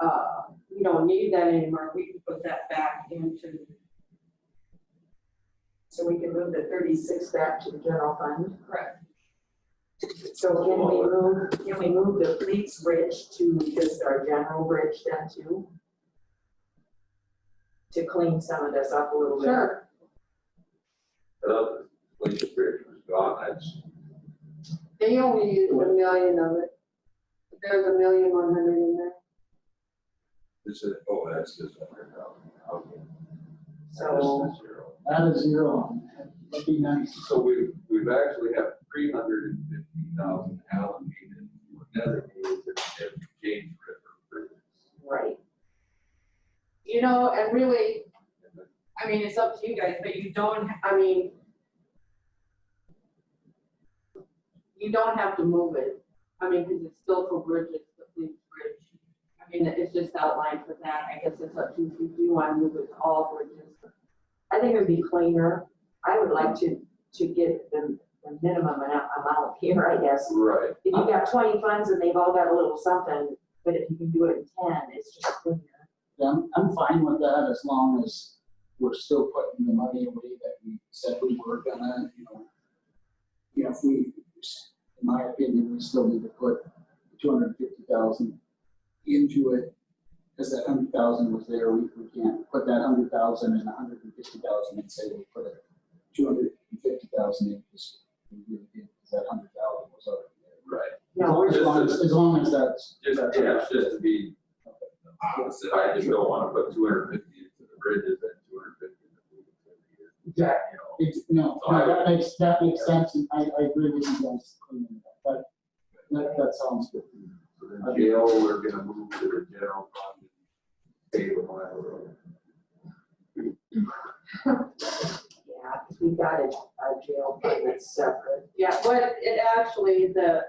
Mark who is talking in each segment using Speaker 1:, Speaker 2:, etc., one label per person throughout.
Speaker 1: uh, we don't need that anymore, we can put that back into,
Speaker 2: So we can move the thirty-six back to the general fund.
Speaker 1: correct,
Speaker 2: So can we move, can we move the police bridge to just our general bridge then too? To clean some of this up a little bit.
Speaker 1: sure,
Speaker 3: Without the police bridge was gone, that's,
Speaker 1: they only used a million of it. There's a million one hundred in there.
Speaker 3: this is, oh, that's just a hundred thousand. Okay.
Speaker 2: So,
Speaker 3: That's the zero.
Speaker 4: Not a zero, that'd be nice.
Speaker 3: So we, we've actually have three hundred and fifty thousand allocated for designated if James River. Bridge.
Speaker 2: right,
Speaker 1: You know, and really,
Speaker 3: And the
Speaker 1: I mean, it's up to you guys, but you don't, I mean, you don't have to move it, I mean, because it's still for bridges, the police bridge. I mean, it's just outlined for that, I guess it's up to you if you want to move it to all bridges.
Speaker 2: I think it'd be cleaner. I would like to, to get the, the minimum amount amount here, I guess.
Speaker 3: Right,
Speaker 2: If you got twenty funds and they've all got a little something, but if you can do it in ten, it's just cleaner.
Speaker 4: Yeah, I'm, I'm fine with that as long as we're still putting the money away that we said we were gonna, you know. You know, if we, in my opinion, we still need to put two hundred and fifty thousand into it. Cause that hundred thousand was there, we, we can't put that hundred thousand and a hundred and fifty thousand and say we put it two hundred and fifty thousand in, because we really did, because that hundred thousand was already there.
Speaker 3: right.
Speaker 2: No,
Speaker 4: As long as, as long as that's.
Speaker 3: Just,
Speaker 4: that's-
Speaker 3: yeah, it's just to be opposite. I just don't want to put two hundred and fifty into the bridges and two hundred and fifty into the police bridge. You
Speaker 4: Exactly.
Speaker 3: know,
Speaker 4: It's, no,
Speaker 3: So I
Speaker 4: no, that makes, that makes sense, and I, I agree with you guys, cleaning it up. that, that, that sounds good.
Speaker 3: So then jail, we're gonna move to the general fund, pay the mile road.
Speaker 2: yeah, because we've got a, a jail fund that's separate.
Speaker 1: Yeah, but it actually, the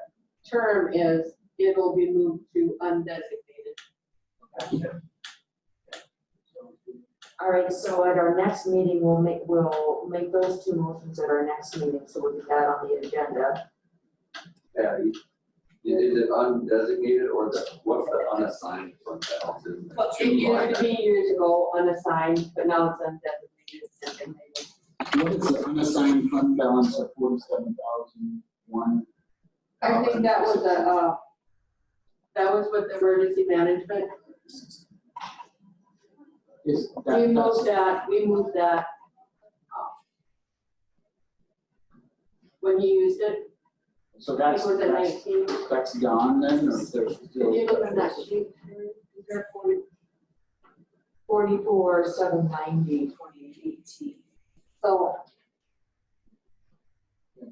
Speaker 1: term is, it'll be moved to undesignated.
Speaker 2: All right, so at our next meeting, we'll make, we'll make those two motions at our next meeting, so we'll get that on the agenda.
Speaker 3: Patty, is it undesignated or the, what's the unassigned fund balance? Is it
Speaker 1: Well,
Speaker 3: two
Speaker 1: it
Speaker 3: line
Speaker 1: used to be years ago unassigned, but now it's undesignated.
Speaker 4: What is the unassigned fund balance of forty-seven thousand one?
Speaker 1: I think that was a, uh, that was with emergency management.
Speaker 4: Is that,
Speaker 1: We
Speaker 4: that's,
Speaker 1: moved that, we moved that. uh, When he used it,
Speaker 4: so
Speaker 1: it
Speaker 4: that's,
Speaker 1: was at
Speaker 4: that's,
Speaker 1: nineteen.
Speaker 4: that's gone then, or is there still?
Speaker 1: It was in that sheet, is there forty?
Speaker 2: Forty-four, seven ninety, twenty eighteen.
Speaker 1: So,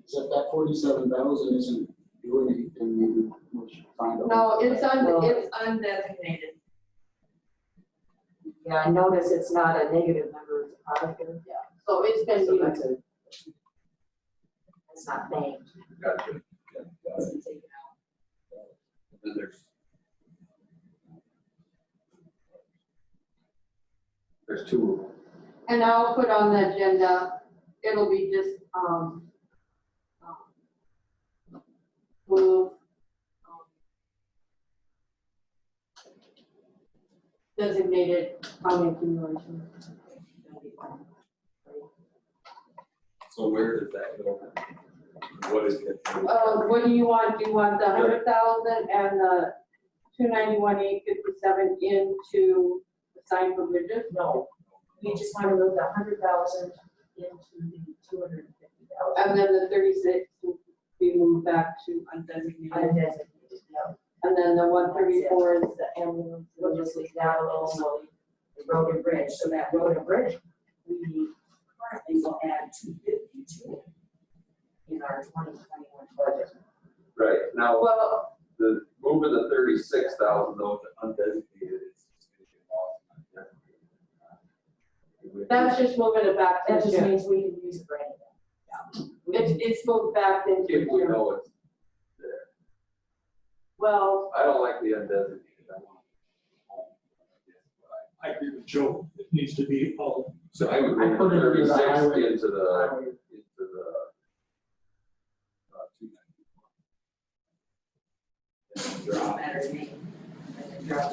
Speaker 4: So if that forty-seven thousand isn't doing anything, maybe we should find out.
Speaker 1: no, it's un, it's undesignated.
Speaker 2: Yeah, I notice it's not a negative number, it's a positive.
Speaker 1: Yeah, so it's been
Speaker 2: So
Speaker 1: used.
Speaker 2: that's a. It's not named.
Speaker 3: Gotcha. Yeah, got it.
Speaker 2: It's taken out.
Speaker 3: And Then there's. There's two of them.
Speaker 1: And I'll put on the agenda, it'll be just, um, um, move, um, designated on accumulation.
Speaker 3: So where does that go? What is it?
Speaker 1: Uh, what do you want? Do you want the hundred thousand and the two ninety-one, eight fifty-seven into the sign for bridges?
Speaker 2: No, we just want to move the hundred thousand into the two hundred and fifty thousand.
Speaker 1: And then the thirty-six, we move back to undesignated.
Speaker 2: Undesignated, no,
Speaker 1: And then the one thirty-four is the ambulance.
Speaker 2: we'll just leave that alone, so the road and bridge, so that road and bridge, we currently will add two fifty to it in our twenty twenty-one budget.
Speaker 3: Right, now,
Speaker 1: Well,
Speaker 3: the, moving the thirty-six thousand though to undesignated is.
Speaker 1: That's just moving it back
Speaker 2: That
Speaker 1: to
Speaker 2: just
Speaker 1: June.
Speaker 2: means we can use it for anything.
Speaker 1: It's, it's moved back into
Speaker 3: If we
Speaker 1: June.
Speaker 3: know it's there.
Speaker 1: Well,
Speaker 3: I don't like the undesignated, I want.
Speaker 5: I agree with Joe, it needs to be all.
Speaker 3: So I would
Speaker 4: I
Speaker 3: bring
Speaker 4: put it in the
Speaker 3: thirty-six
Speaker 4: highway.
Speaker 3: into uh, the
Speaker 4: Highway
Speaker 3: uh,